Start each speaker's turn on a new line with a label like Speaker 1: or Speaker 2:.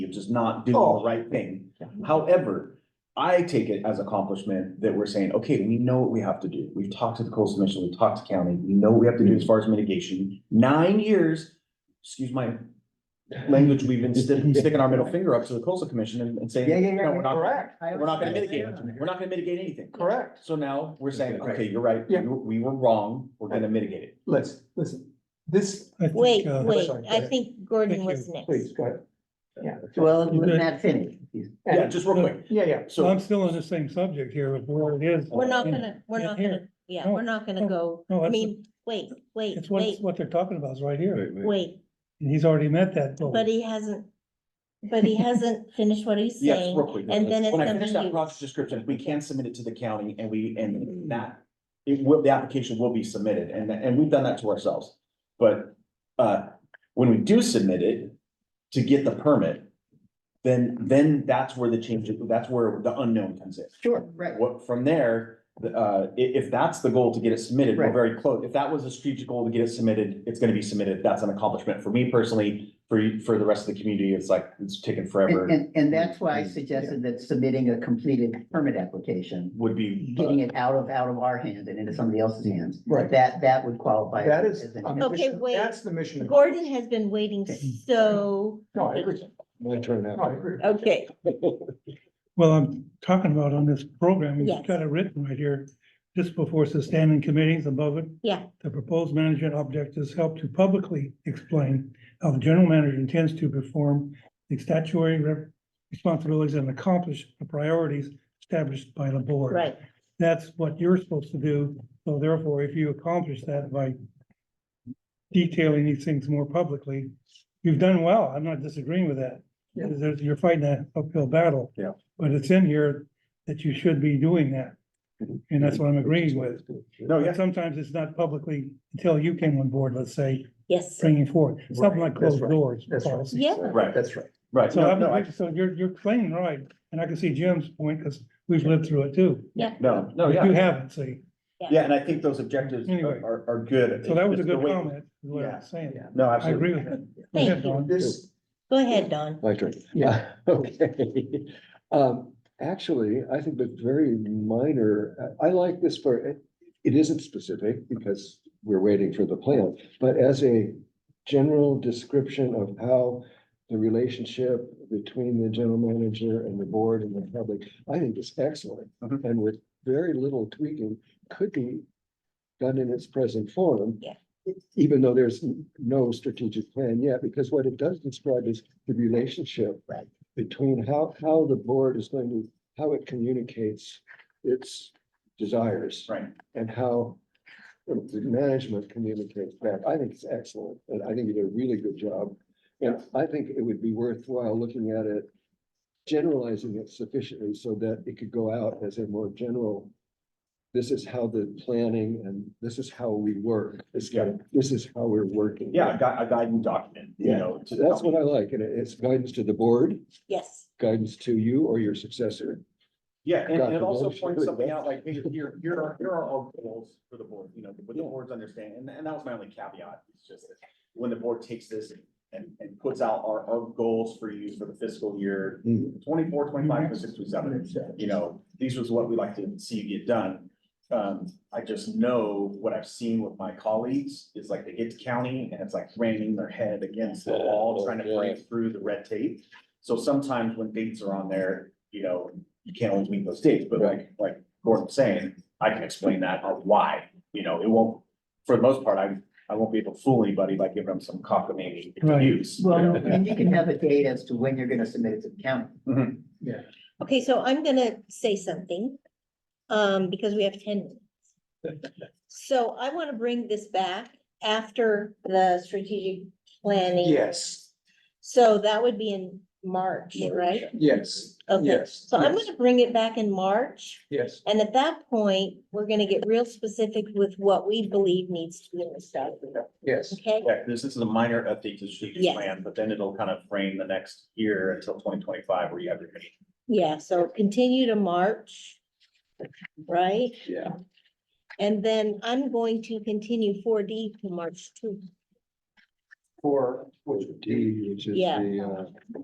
Speaker 1: is just not doing
Speaker 2: Oh.
Speaker 1: the right thing. However, I take it as accomplishment that we're saying, okay, we know what we have to do. We've talked to the coastal commission, we've talked to county, we know what we have to do as far as mitigation. Nine years, excuse my language, we've been sti- sticking our middle finger up to the coastal commission and, and saying,
Speaker 2: Yeah, yeah, yeah,
Speaker 1: no, we're not,
Speaker 2: correct,
Speaker 1: we're not gonna mitigate, anything. we're not gonna mitigate anything.
Speaker 2: correct.
Speaker 1: So now we're saying,
Speaker 3: Right.
Speaker 1: okay, you're right, we
Speaker 2: Yeah.
Speaker 1: were, we were wrong, we're gonna mitigate it.
Speaker 2: Listen, listen, this,
Speaker 4: I think,
Speaker 5: Wait,
Speaker 4: uh,
Speaker 5: wait,
Speaker 2: sorry, go
Speaker 5: I
Speaker 2: ahead.
Speaker 5: think Gordon
Speaker 4: Thank
Speaker 5: was
Speaker 4: you.
Speaker 5: next.
Speaker 2: please, go ahead. Yeah.
Speaker 3: Well,
Speaker 4: You
Speaker 3: let
Speaker 4: bet.
Speaker 3: Matt finish.
Speaker 1: Yeah, just real quick,
Speaker 2: Yeah, yeah.
Speaker 4: so
Speaker 1: so,
Speaker 4: I'm still on the same subject here of where it is.
Speaker 5: We're not
Speaker 4: And-
Speaker 5: gonna, we're
Speaker 4: in
Speaker 5: not
Speaker 4: here.
Speaker 5: gonna, yeah,
Speaker 4: No,
Speaker 5: we're not gonna
Speaker 4: no,
Speaker 5: go,
Speaker 4: no,
Speaker 5: I
Speaker 4: that's-
Speaker 5: mean, wait, wait,
Speaker 4: It's what,
Speaker 5: wait,
Speaker 4: it's what they're talking about is right here.
Speaker 5: wait,
Speaker 4: And he's already met that goal.
Speaker 5: but he hasn't, but he hasn't finished what he's
Speaker 1: yes,
Speaker 5: saying.
Speaker 1: real quick. uh,
Speaker 5: and then it's
Speaker 1: When I
Speaker 5: gonna
Speaker 1: finish
Speaker 5: be Mm.
Speaker 1: that
Speaker 5: used.
Speaker 1: project description, we can submit it to the county and we, and that, it will, the application will be submitted and, and we've done that to ourselves. But, uh, when we do submit it to get the permit, then, then that's where the change, that's where the unknown comes in.
Speaker 3: Sure, right.
Speaker 1: What, from there, the, uh, i- if that's the goal to get it submitted, we're
Speaker 3: Right.
Speaker 1: very close. If that was a strategic goal to get it submitted, it's gonna be submitted. That's an accomplishment for me personally. For you, for the rest of the community, it's like, it's taken
Speaker 3: And,
Speaker 1: forever,
Speaker 3: and, and that's why I suggested that submitting a completed permit application,
Speaker 1: would be. uh,
Speaker 3: getting it out of, out of our hands and into somebody else's hands.
Speaker 2: Right.
Speaker 3: That, that would qualify.
Speaker 2: That is,
Speaker 3: as an-
Speaker 2: a
Speaker 5: Okay,
Speaker 2: mission-
Speaker 5: wait.
Speaker 2: that's the mission.
Speaker 5: Gordon has been waiting so,
Speaker 2: No, I agree.
Speaker 6: My turn
Speaker 2: No, I agree.
Speaker 5: okay,
Speaker 4: Well, I'm talking about on this program,
Speaker 5: Yes.
Speaker 4: we've got it written right here. This before sustaining committees above it.
Speaker 5: Yeah.
Speaker 4: The proposed management objectives help to publicly explain how the general manager intends to perform the statutory re- responsibilities and accomplish the priorities established by the board.
Speaker 5: right,
Speaker 4: That's what you're supposed to do. So therefore, if you accomplish that by detailing these things more publicly, you've done well. I'm not disagreeing with that.
Speaker 2: Yeah.
Speaker 4: There's- You're fighting an uphill battle.
Speaker 1: Yeah.
Speaker 4: But it's in here that you should be doing that. And that's what I'm agreeing with.
Speaker 2: Oh,
Speaker 1: No,
Speaker 4: But
Speaker 1: yes,
Speaker 4: sometimes it's not publicly until you came on board, let's say,
Speaker 5: yes,
Speaker 4: bringing forward, something
Speaker 2: Right,
Speaker 4: like
Speaker 2: that's
Speaker 4: closed
Speaker 2: right,
Speaker 4: doors.
Speaker 2: That's right.
Speaker 4: policy.
Speaker 5: Yeah.
Speaker 1: Right.
Speaker 2: That's right.
Speaker 1: right.
Speaker 4: So
Speaker 1: No, no,
Speaker 4: I'm,
Speaker 1: I,
Speaker 4: so you're, you're playing right. And I can see Jim's point because we've lived through it too.
Speaker 1: no, no,
Speaker 4: But
Speaker 1: yeah.
Speaker 4: You haven't, see.
Speaker 1: Yeah, and I think those objectives
Speaker 4: Anyway.
Speaker 1: are, are- are good.
Speaker 4: So that was a
Speaker 1: It's the
Speaker 4: good
Speaker 1: way-
Speaker 4: comment, is what
Speaker 1: Yeah.
Speaker 4: I'm saying.
Speaker 2: Yeah.
Speaker 1: No,
Speaker 4: I
Speaker 1: absolutely.
Speaker 4: agree with that. Go
Speaker 5: Thank
Speaker 4: ahead,
Speaker 5: you.
Speaker 4: Dawn.
Speaker 2: This,
Speaker 5: go ahead, Don.
Speaker 6: My turn.
Speaker 2: Yeah.
Speaker 6: Okay. Um, actually, I think that's very minor. I I like this for, it, it isn't specific because we're waiting for the plan, but as a general description of how the relationship between the general manager and the board and the public, I think is excellent.
Speaker 1: Mhm.
Speaker 6: And with very little tweaking, could be done in its present form.
Speaker 5: Yeah.
Speaker 6: Even though there's n- no strategic plan yet, because what it does describe is the relationship.
Speaker 3: Right.
Speaker 6: Between how, how the board is going to, how it communicates its desires.
Speaker 1: Right.
Speaker 6: And how the management communicates back. I think it's excellent, and I think you did a really good job. And I think it would be worthwhile looking at it, generalizing it sufficiently so that it could go out as a more general this is how the planning and this is how we work. It's got, this is how we're working.
Speaker 1: Yeah, a gui- a guiding document, you
Speaker 6: Yeah.
Speaker 1: know. to
Speaker 6: So that's what
Speaker 1: help.
Speaker 6: I like. And it- it's guidance to the board,
Speaker 5: Yes,
Speaker 6: guidance to you or your successor.
Speaker 1: Yeah, and and it
Speaker 6: Dr.
Speaker 1: also
Speaker 6: Walsh.
Speaker 1: points something out, like, hey, here, here are, here are our goals for the board, you know, with the board's understanding, and, and that was my only caveat, it's just that when the board takes this and, and puts out our, our goals for you for the fiscal year, twenty-four, twenty-five, twenty-six, twenty-seven, you know, these was what we like to see you get done. Um, I just know what I've seen with my colleagues is like they get to county and it's like ramming their head against the wall, trying to break through the red tape. So sometimes when dates are on there, you know, you can't always meet those dates, but like, like Gordon's saying, I can explain that of why, you know, it won't, for the most part, I, I won't be able to fool anybody by giving them some cockamamie
Speaker 4: Right.
Speaker 1: excuse. you
Speaker 3: Well,
Speaker 1: know?
Speaker 3: and you can have a date as to when you're gonna submit it to the county.
Speaker 5: okay, so I'm gonna say something, um, because we have ten minutes. So I wanna bring this back after the strategic planning.
Speaker 2: yes,
Speaker 5: So that would be in March, right?
Speaker 2: yes,
Speaker 5: Okay,
Speaker 2: yes.
Speaker 5: so I'm
Speaker 2: yes,
Speaker 5: gonna bring it back in March,
Speaker 2: Yes,
Speaker 5: and at that point, we're gonna get real specific with what we believe needs to be in the stuff,
Speaker 2: yes.
Speaker 5: okay?
Speaker 1: Yeah, this, this is a minor update to the strategic
Speaker 5: Yes.
Speaker 1: plan, but then it'll kind of frame the next year until twenty twenty-five where you have your.
Speaker 5: Yeah, so continue to March, right?
Speaker 2: Yeah.
Speaker 5: And then I'm going to continue four D to March two.
Speaker 2: For, which
Speaker 6: D, which is
Speaker 5: Yeah.
Speaker 6: the, uh,